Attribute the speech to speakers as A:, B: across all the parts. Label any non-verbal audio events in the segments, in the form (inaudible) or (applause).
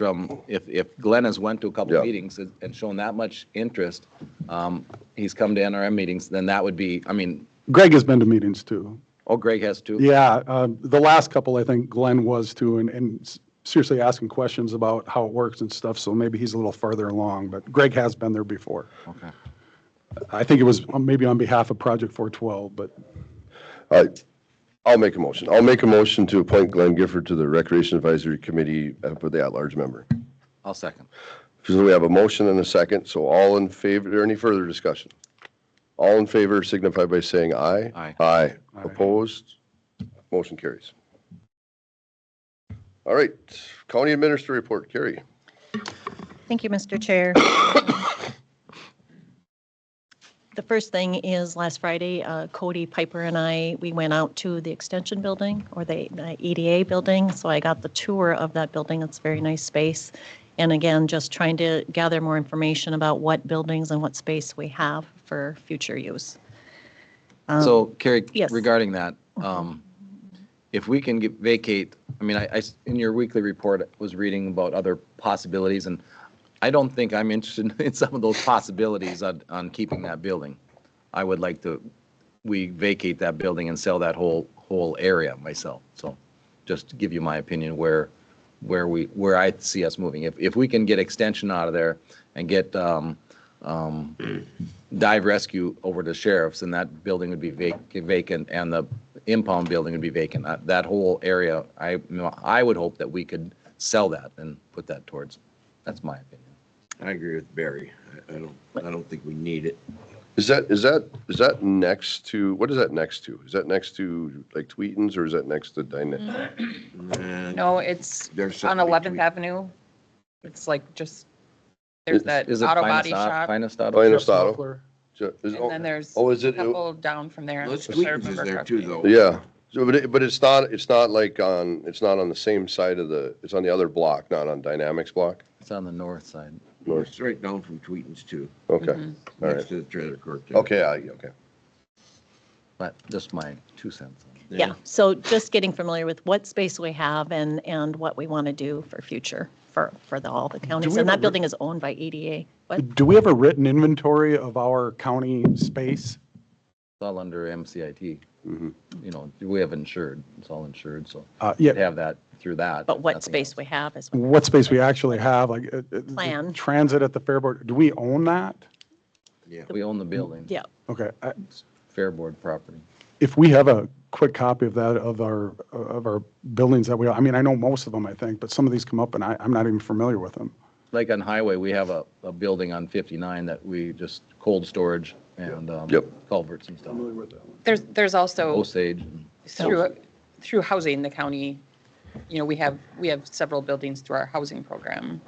A: from, if, if Glenn has went to a couple
B: Yeah.
A: meetings and- and shown that much interest, um, he's come to NRM meetings, then that would be, I mean,
C: Greg has been to meetings too.
A: oh, Greg has too.
C: Yeah, um, the last couple, I think Glenn was too, and, and s- seriously asking questions about how it works and stuff, so maybe he's a little farther along, but Greg has been there before.
A: Okay.
C: I think it was um, maybe on behalf of Project 412, but
B: All right, I'll make a motion. I'll make a motion to appoint Glenn Gifford to the Recreation Advisory Committee uh, for the at-large member.
A: I'll second.
B: So we have a motion and a second, so all in favor, or any further discussion? All in favor signify by saying aye.
A: Aye.
B: Aye.
C: Aye.
B: Opposed? Motion carries. All right, County Administrator Report, Carrie.
D: Thank you, Mr. Chair. The first thing is, last Friday, uh, Cody Piper and I, we went out to the Extension Building, or the the EDA Building, so I got the tour of that building, it's a very nice space. And again, just trying to gather more information about what buildings and what space we have for future use.
A: So Carrie,
D: yes.
A: regarding that, um, if we can get- vacate, I mean, I, I s- in your weekly report, I was reading about other possibilities, and I don't think I'm (laughs) interested in some of those possibilities on, on keeping that building. I would like to, we vacate that building and sell that whole, whole area myself, so just to give you my opinion where, where we, where I see us moving. If, if we can get extension out of there and get, um, dive rescue over to sheriff's and that building would be vac- vacant and the impound building would be vacant. Uh, That whole area, I, I would hope that we could sell that and put that towards, that's my opinion.
E: I agree with Barry. I- I don't, I don't think we need it.
B: Is that, is that, is that next to, what is that next to? Is that next to like Tweetins or is that next to
F: Mm-hmm.
B: Dyna?
E: Nah,
F: No, it's
E: Uh, There's
F: on
E: something
F: 11th
E: between-
F: Avenue. It's like just, there's that
A: Is it
F: auto
A: Finest
F: body
A: Au-
F: shop. And
A: Finest auto?
B: Finest Auto?
C: Loeffler,
B: Is it-
F: then there's
B: Oh,
F: a
B: is it?
F: couple down from there.
E: Let's
F: if I
E: tweak is
F: remember
E: there too,
F: correctly.
E: though.
B: Yeah, so, but it, but it's not, it's not like on, it's not on the same side of the, it's on the other block, not on Dynamics block?
A: It's on the north side.
B: North.
E: It's right down from Tweetins too,
B: Okay, all
E: next
B: right.
E: to the trailer court. there.
B: Okay, I, okay.
A: But just my two cents.
E: Yeah.
D: Yeah, so just getting familiar with what space we have and, and what we want to do for future, for, for the, all the counties.
C: we
D: And
C: have a
D: that building is owned by EDA. What?
C: Do we have a written inventory of our county space?
A: It's all under MCIT.
B: Mm-hmm.
A: You know, we have insured, it's all insured, so
C: Uh,
A: we'd
C: Yeah,
A: have that through that.
D: But what
A: nothing
D: space
A: else.
D: we have is, what-
C: what space we actually have, like. uh, uh, the
D: Plan.
C: Transit at the Fairboard, do we own that?
E: Yeah.
A: We own the building.
D: yeah,
C: Okay, I-
A: Fair board property.
C: if we have a quick copy of that, of our, of our buildings that we, I mean, I know most of them, I think, but some of these come up and I, I'm not even familiar with them.
A: Like on Highway, we have a, a building on 59 that we just cold storage and um,
B: Yep.
A: culverts and stuff.
F: There's, there's also
A: Osage. and-
F: through, through housing, the county, you know, we have, we have several buildings through our housing program.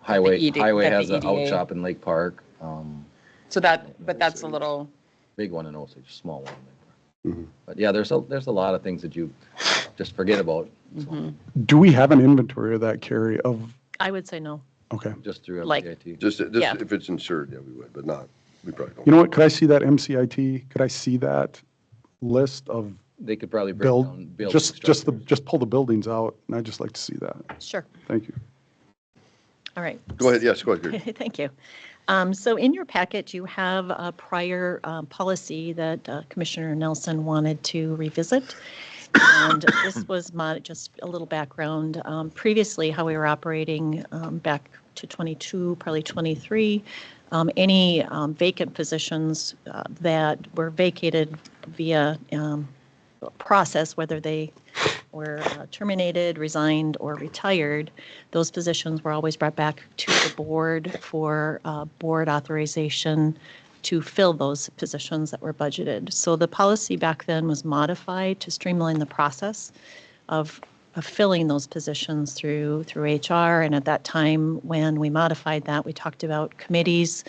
A: Highway,
F: ED
A: highway
F: that the E
A: has an out
F: EDA
A: shop in Lake Park, um,
F: So that, but that's a little,
A: big one in Osage, small one. in Lake Park. But yeah, there's a, there's a lot of things that you just forget about, so,
C: Do we have an inventory of that, Carrie, of,
D: I would say no.
C: okay.
A: just through
D: Like-
A: MCIT.
B: Just,
D: Yeah.
B: just if it's insured, yeah, we would, but not, we probably don't.
C: You know what, could I see that MCIT, could I see that list of
A: They could probably break down
C: build,
A: building
C: just, just the,
A: structures.
C: just pull the buildings out, and I'd just like to see that,
D: Sure,
C: thank you.
D: all right.
B: Go ahead, yes, go ahead. Gary.
D: (laughs) Thank you. Um, So in your packet, you have a prior um, policy that uh, Commissioner Nelson wanted to revisit.
B: (coughs)
D: And this was my, just a little background. Um, Previously, how we were operating um, back to 22, probably 23, um, any um, vacant positions uh, that were vacated via um, process, whether they were uh, terminated, resigned, or retired, those positions were always brought back to the board for uh, board authorization to fill those positions that were budgeted. So the policy back then was modified to streamline the process of of filling those positions through through HR. And at that time, when we modified that, we talked about committees,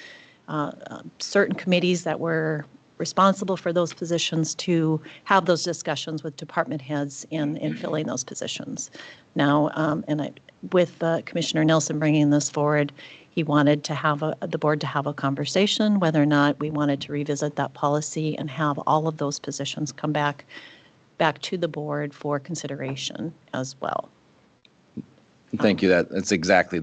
D: uh, um, certain committees that were responsible for those positions to have those discussions with department heads in, in filling those positions. Now, um, and I, with uh, Commissioner Nelson bringing this forward, he wanted to have a, the board to have a conversation whether or not we wanted to revisit that policy and have all of those positions come back, back to the board for consideration as well.
A: Thank you. That, that's exactly